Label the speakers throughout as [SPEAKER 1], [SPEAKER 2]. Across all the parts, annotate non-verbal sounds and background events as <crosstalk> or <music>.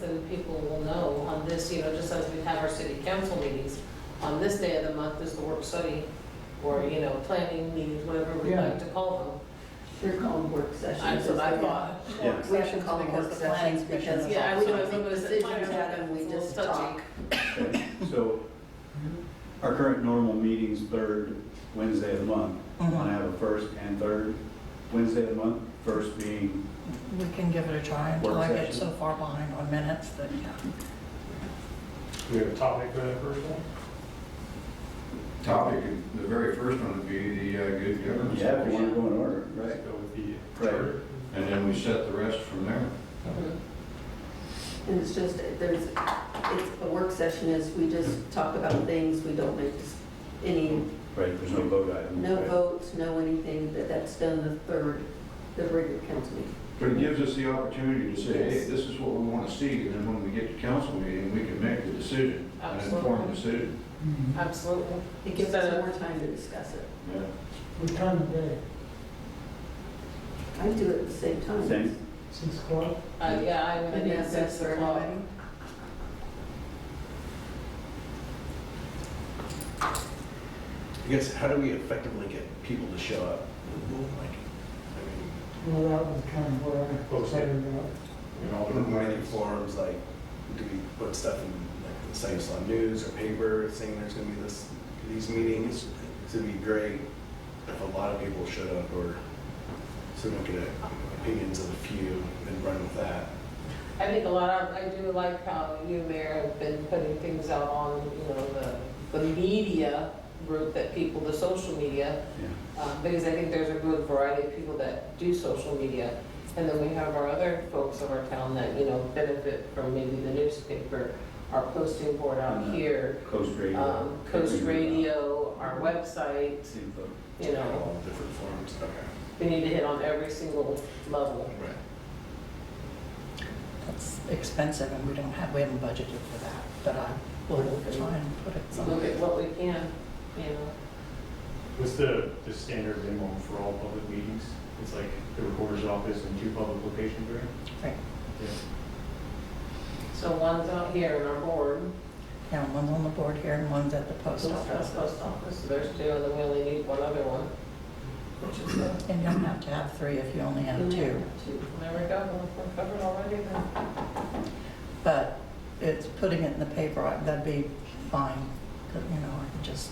[SPEAKER 1] then people will know on this, you know, just as we have our city council meetings, on this day of the month is the work study, or, you know, planning meetings, whatever we
[SPEAKER 2] Yeah.
[SPEAKER 1] like to call
[SPEAKER 3] They're called work
[SPEAKER 1] them.
[SPEAKER 3] sessions.
[SPEAKER 1] That's what I thought.
[SPEAKER 4] Yeah.
[SPEAKER 3] We should call them work sessions because.
[SPEAKER 1] Yeah, I would always
[SPEAKER 3] something
[SPEAKER 1] remember this at
[SPEAKER 3] Decisions
[SPEAKER 1] times,
[SPEAKER 3] happen, we
[SPEAKER 1] it's a
[SPEAKER 3] just
[SPEAKER 1] little
[SPEAKER 3] talk.
[SPEAKER 4] Okay, So our current normal meeting's third Wednesday of the month. Want to have a first and third Wednesday of the month, first being,
[SPEAKER 2] We can give it a try until
[SPEAKER 4] Work
[SPEAKER 2] I get
[SPEAKER 4] session.
[SPEAKER 2] so far behind on minutes that, yeah.
[SPEAKER 5] We have a topic for that first one?
[SPEAKER 6] topic, the very first one would be the uh, good governance.
[SPEAKER 4] yeah, if you want to go in order, right?
[SPEAKER 5] Let's go with the
[SPEAKER 4] Right.
[SPEAKER 5] charter.
[SPEAKER 6] And then we set the rest from there.
[SPEAKER 1] Mhm.
[SPEAKER 3] And it's just, there's, it's, a work session is, we just talk about things, we don't make dis- any,
[SPEAKER 4] Right, there's no vote item.
[SPEAKER 3] no
[SPEAKER 4] right?
[SPEAKER 3] votes, no anything, that, that's done the third, the regular council meeting.
[SPEAKER 6] But it gives us the opportunity to say, hey,
[SPEAKER 3] Yes.
[SPEAKER 6] this is what we want to see, and then when we get to council meeting, we can make the decision, an
[SPEAKER 1] Absolutely.
[SPEAKER 6] informed decision.
[SPEAKER 1] Absolutely.
[SPEAKER 3] It gives us more time to discuss it.
[SPEAKER 6] Yeah.
[SPEAKER 7] What time of day?
[SPEAKER 3] I do it at the same time.
[SPEAKER 4] Same.
[SPEAKER 7] Six o'clock?
[SPEAKER 1] Uh, yeah, I would
[SPEAKER 3] And
[SPEAKER 1] think
[SPEAKER 3] that's
[SPEAKER 1] six
[SPEAKER 3] best for
[SPEAKER 1] o'clock.
[SPEAKER 3] everybody.
[SPEAKER 8] I guess, how do we effectively get people to show up? Like, I
[SPEAKER 7] Well, that was kind of where I was
[SPEAKER 5] Okay.
[SPEAKER 7] headed about.
[SPEAKER 6] You know,
[SPEAKER 8] mean, we
[SPEAKER 6] we're-
[SPEAKER 8] do forums, like, do we put stuff in, like, the Cyclone News or paper saying there's gonna be this, these meetings? It'd be great if a lot of people showed up or so we could get opinions of a few and run with that.
[SPEAKER 1] I think a lot of, I do like how you, Mayor, have been putting things out on, you know, the, the media group that people, the social media,
[SPEAKER 4] Yeah.
[SPEAKER 1] um, because I think there's a good variety of people that do social media. And then we have our other folks of our town that, you know, benefit from maybe the newspaper, our posting board out
[SPEAKER 4] Mhm.
[SPEAKER 1] here,
[SPEAKER 4] Coast radio. Mm-hmm.
[SPEAKER 1] um, Coast Radio, our website,
[SPEAKER 4] Same vote.
[SPEAKER 1] you know,
[SPEAKER 8] All different forums, okay.
[SPEAKER 1] we need to hit on every single level.
[SPEAKER 8] Right.
[SPEAKER 2] That's expensive and we don't have, we haven't budgeted for that, but I will try and put it
[SPEAKER 1] Look
[SPEAKER 2] somewhere.
[SPEAKER 1] at what we can, you know.
[SPEAKER 5] What's the, the standard minimum for all public meetings? It's like the recorder's office and two public locations, right?
[SPEAKER 2] Right.
[SPEAKER 5] Yeah.
[SPEAKER 1] So one's out here in our board,
[SPEAKER 2] Yeah, one's on the board here and one's at the post
[SPEAKER 1] Post
[SPEAKER 2] office.
[SPEAKER 1] office, post office, so there's two, and then we only need one other one. Which is, uh,
[SPEAKER 2] And you don't have to have three if you only have
[SPEAKER 4] Mm-hmm.
[SPEAKER 2] two.
[SPEAKER 1] there we go, we're covered already then.
[SPEAKER 2] But it's putting it in the paper, I- that'd be fine, 'cause, you know, I can just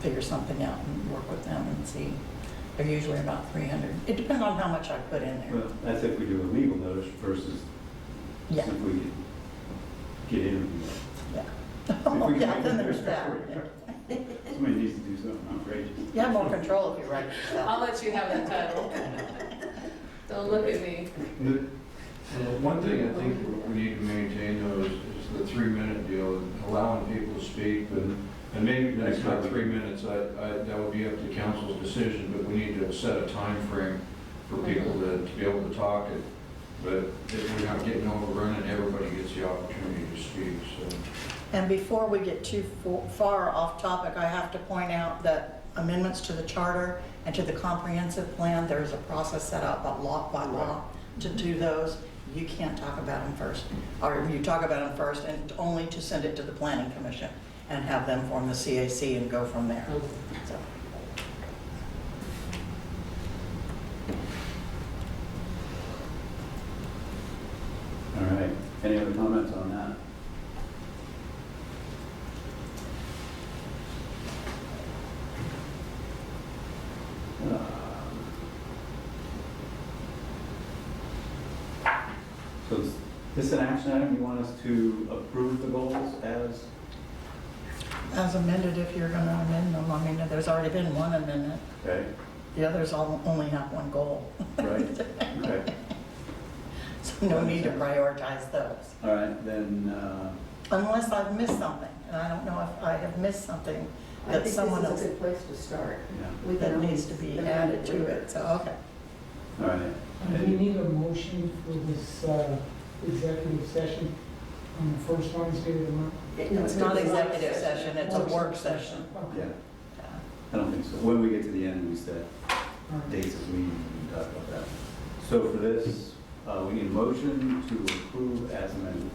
[SPEAKER 2] figure something out and work with them and see. They're usually about 300. It depends on how much I put in there.
[SPEAKER 4] Well, that's if we do a legal notice versus
[SPEAKER 2] Yeah,
[SPEAKER 4] if we get interviewed.
[SPEAKER 2] yeah. <laughs>
[SPEAKER 4] If we can
[SPEAKER 2] Yeah,
[SPEAKER 4] make
[SPEAKER 2] then
[SPEAKER 4] it
[SPEAKER 2] there's
[SPEAKER 4] work.
[SPEAKER 2] that.
[SPEAKER 4] Somebody needs to do something outrageous.
[SPEAKER 2] You have more control if you write it
[SPEAKER 1] I'll let
[SPEAKER 2] yourself.
[SPEAKER 1] you have the title. Don't look at me.
[SPEAKER 6] The- the One thing I think we need to maintain though is is the three-minute deal, and allowing people to speak, but And maybe that's not three minutes, I, I, that would be up to council's decision, but we need to set a time frame for people to, to be able to talk it. But if we're not getting overrun and everybody gets the opportunity to speak, so.
[SPEAKER 2] And before we get too fo- far off topic, I have to point out that amendments to the charter and to the comprehensive plan, there is a process set out by law, by law to do those. You can't talk about them first, or you talk about them first and only to send it to the planning commission and have them form the CAC and go from there. So,
[SPEAKER 4] All right, any other comments on that? Uh, So is this an action item, you want us to approve the goals as,
[SPEAKER 2] As amended, if you're gonna amend them, I mean, there's already been one amendment,
[SPEAKER 4] okay,
[SPEAKER 2] the others all only have one goal.
[SPEAKER 4] right? Okay,
[SPEAKER 2] So no need to prioritize those.
[SPEAKER 4] all right, then, uh,
[SPEAKER 2] unless I've missed something, and I don't know if I have missed something
[SPEAKER 3] I
[SPEAKER 2] that
[SPEAKER 3] think this is
[SPEAKER 2] someone else,
[SPEAKER 3] a good place to start.
[SPEAKER 4] yeah,
[SPEAKER 3] We
[SPEAKER 2] that
[SPEAKER 3] can
[SPEAKER 2] needs to be
[SPEAKER 3] amend
[SPEAKER 2] added to it, so, okay.
[SPEAKER 4] all right.
[SPEAKER 7] And we need a motion for this uh, executive session on the first Wednesday of the month.
[SPEAKER 3] No,
[SPEAKER 2] It's not
[SPEAKER 3] it's not.
[SPEAKER 2] executive session, it's a work session.
[SPEAKER 4] Yeah,
[SPEAKER 7] Okay.
[SPEAKER 4] I don't think so, when we get to the end, we said.
[SPEAKER 7] All right.
[SPEAKER 4] dates as we need to talk about that. So for this, uh, we need a motion to approve as amended.